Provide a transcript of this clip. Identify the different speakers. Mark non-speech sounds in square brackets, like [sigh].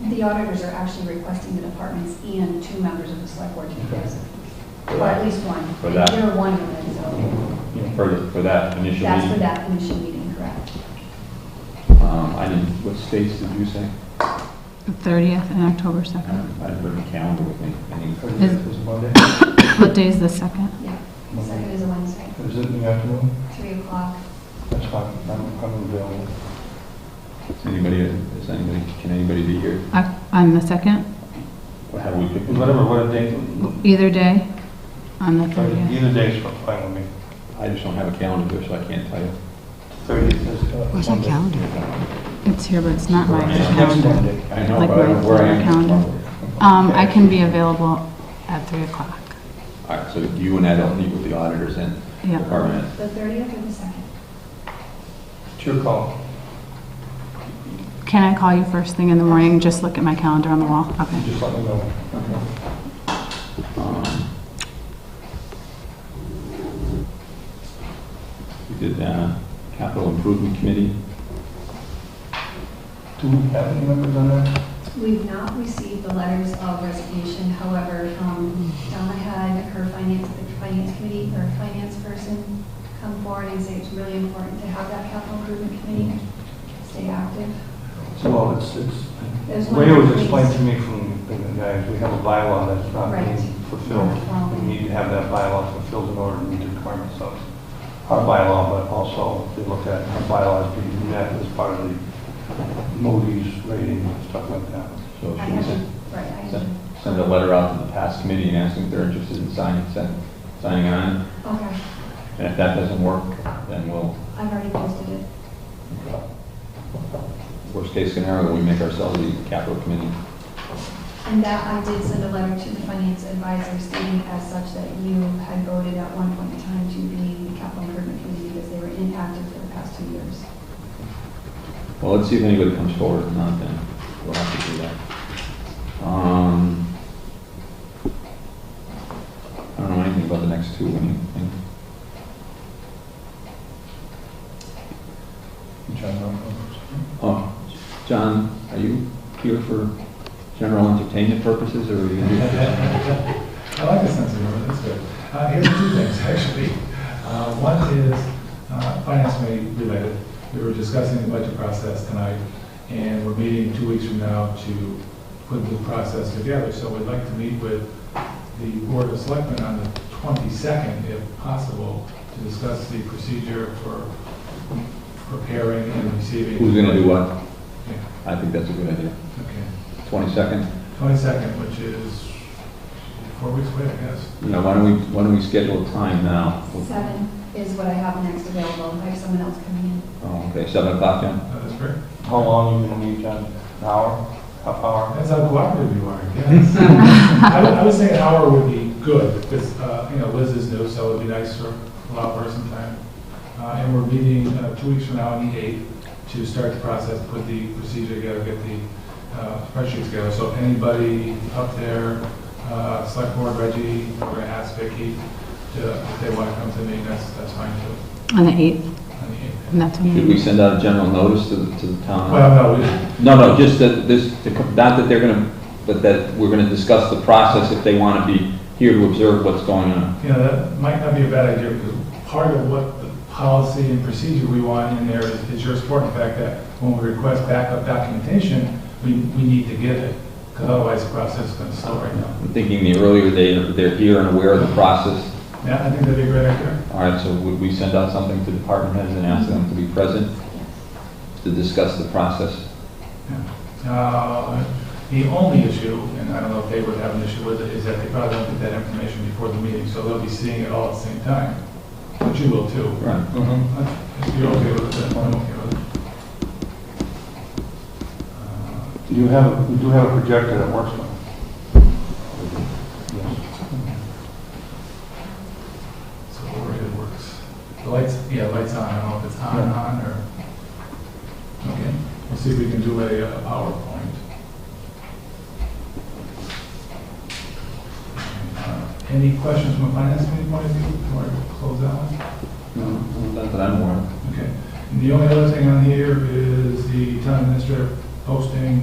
Speaker 1: The auditors are actually requesting the departments and two members of the select board to be present, or at least one.
Speaker 2: For that.
Speaker 1: There are one of them, so
Speaker 2: For, for that initial
Speaker 1: that's for
Speaker 2: meeting?
Speaker 1: that initial meeting, correct?
Speaker 2: Um, I didn't, what states did you say?
Speaker 3: The 30th and October
Speaker 2: I don't
Speaker 3: 2nd.
Speaker 2: know. I didn't put a calendar with me. Any-
Speaker 3: Is-
Speaker 4: It was Monday,
Speaker 3: What day is the 2nd?
Speaker 1: Yeah, second is a Wednesday,
Speaker 4: is it in the afternoon?
Speaker 1: three o'clock.
Speaker 4: That's fine, I'm, I'm available.
Speaker 2: Is anybody, is anybody, can anybody be here?
Speaker 3: Oc- On the 2nd?
Speaker 2: How do we pick?
Speaker 4: Whatever, what day,
Speaker 3: Either day? On the 30th?
Speaker 4: either day's fine with me.
Speaker 2: I just don't have a calendar here, so I can't tell you.
Speaker 4: Thirtieth is uh,
Speaker 5: Where's my
Speaker 4: Monday.
Speaker 5: calendar?
Speaker 3: It's here, but it's not my
Speaker 2: Right.
Speaker 4: Next
Speaker 3: calendar.
Speaker 4: Monday.
Speaker 2: I know,
Speaker 3: Like
Speaker 2: but I don't
Speaker 3: my
Speaker 2: know where I am.
Speaker 3: calendar. Um, I can be available at 3 o'clock.
Speaker 2: All right, so you and I don't meet with the auditors and
Speaker 3: Yeah.
Speaker 2: department.
Speaker 1: The thirtieth or the second?
Speaker 4: It's your call.
Speaker 3: Can I call you first thing in the morning? Just look at my calendar on the wall?
Speaker 4: You
Speaker 3: Okay.
Speaker 4: just let me know.
Speaker 2: Um, We did uh, capital improvement committee.
Speaker 4: Do we have any members on that?
Speaker 1: We've not received the letters of resignation, however, um, Donna had her finance, the finance committee, or finance person come forward and say it's really important to have that capital improvement committee stay active.
Speaker 4: Well, it's, it's,
Speaker 1: There's
Speaker 4: the
Speaker 1: one
Speaker 4: way it was
Speaker 1: place-
Speaker 4: explained to me from the guys, we have a bylaw that's not being
Speaker 1: Right.
Speaker 4: fulfilled. We need to have that bylaw fulfilled in order to meet the requirements of our bylaw, but also they look at our bylaws being met as part of the Moody's rating and stuff like that.
Speaker 1: I
Speaker 2: So should we
Speaker 1: haven't-
Speaker 2: send,
Speaker 1: Right, I
Speaker 2: send-
Speaker 1: haven't.
Speaker 2: send a letter out to the past committee and ask them if they're interested in signing, send- signing on?
Speaker 1: Okay,
Speaker 2: And if that doesn't work, then we'll,
Speaker 1: I've already posted it.
Speaker 2: worst case scenario, we make ourselves the capital committee.
Speaker 1: And that, I did send a letter to the finance advisor stating as such that you had voted at one point in time to be the capital improvement committee because they were inactive for the past two years.
Speaker 2: Well, let's see if anybody comes forward or not, then we'll have to do that. Um, I don't know anything about the next two, anything? Oh, John, are you here for general entertainment purposes, or are you here?
Speaker 6: I like the sense of humor, that's good. Uh, here's two things, [laughs] actually. Uh, one is, uh, finance committee related. We were discussing the budget process tonight, and we're meeting two weeks from now to put the process together. So we'd like to meet with the Board of Selectmen on the 22nd, if possible, to discuss the procedure for preparing and receiving.
Speaker 2: Who's gonna do what?
Speaker 6: Yeah,
Speaker 2: I think that's a good idea.
Speaker 6: Okay.
Speaker 2: Twenty-second,
Speaker 6: 22nd, which is four weeks away, I guess.
Speaker 2: you know, why don't we, why don't we schedule a time now?
Speaker 1: Seven is what I have next available. I have someone else coming
Speaker 2: Oh, okay, seven o'clock, John?
Speaker 6: Uh, That's great.
Speaker 4: How long you gonna need, John? An hour? Half hour?
Speaker 6: That's how cooperative you are, yes. I would, I would say an hour would be good, because, uh, you know, Liz is new, so it'd be nice for, allow her some time. Uh, and we're meeting, uh, two weeks from now on the eighth to start the process, put the procedure together, get the, uh, spreadsheet together. So if anybody up there, uh, select board Reggie, we're gonna ask Vicky to, if they wanna come to me, that's, that's fine too,
Speaker 3: On the 8th,
Speaker 6: on the eighth.
Speaker 3: and that's
Speaker 2: Should we
Speaker 3: when,
Speaker 2: send out a general notice to the, to the town?
Speaker 6: Well, no, we,
Speaker 2: No, no, just that this, to co- not that they're gonna, but that we're gonna discuss the process if they wanna be here to observe what's going on.
Speaker 6: you know, that might not be a bad idea, because part of what the policy and procedure we want in there is is your support, in fact, that when we request backup documentation, we, we need to get it, because otherwise the process is going to slow right now.
Speaker 2: I'm thinking the earlier they, they're here and aware of the process.
Speaker 6: Yeah, I think that'd be a great idea.
Speaker 2: All right, so would we send out something to department heads and ask them to be present
Speaker 1: in. Yes.
Speaker 2: to discuss the process?
Speaker 6: Uh, The only issue, and I don't know if they would have an issue with it, is that they probably won't get that information before the meeting, so they'll be seeing it all at the same time, but you will too.
Speaker 2: Right.
Speaker 4: Mm-hmm.
Speaker 6: If you're okay with it, then I'm okay with it. Uh,
Speaker 4: You have, we do have a projector that works on
Speaker 6: So we're it works. The lights, yeah, lights on, I don't know if it's on,
Speaker 4: Yeah.
Speaker 6: on, or, okay, we'll see if we can do a uh, PowerPoint. Uh, Any questions from a finance committee point of view, before I close that one?
Speaker 2: Not that I'm aware of.
Speaker 6: Okay, and the only other thing on here is the town administrator posting